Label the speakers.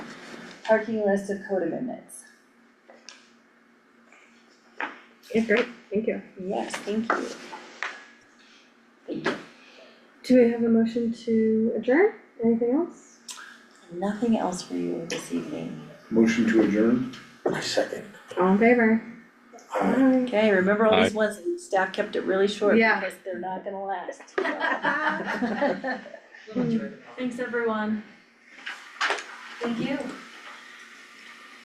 Speaker 1: parking list of code amendments.
Speaker 2: Yeah, great, thank you.
Speaker 1: Yes, thank you. Thank you.
Speaker 2: Do we have a motion to adjourn? Anything else?
Speaker 1: Nothing else for you this evening.
Speaker 3: Motion to adjourn?
Speaker 4: My second.
Speaker 2: All in favor? Aye.
Speaker 1: Okay, remember all these ones, staff kept it really short
Speaker 2: Yeah.
Speaker 1: because they're not gonna last.
Speaker 5: Thanks, everyone. Thank you.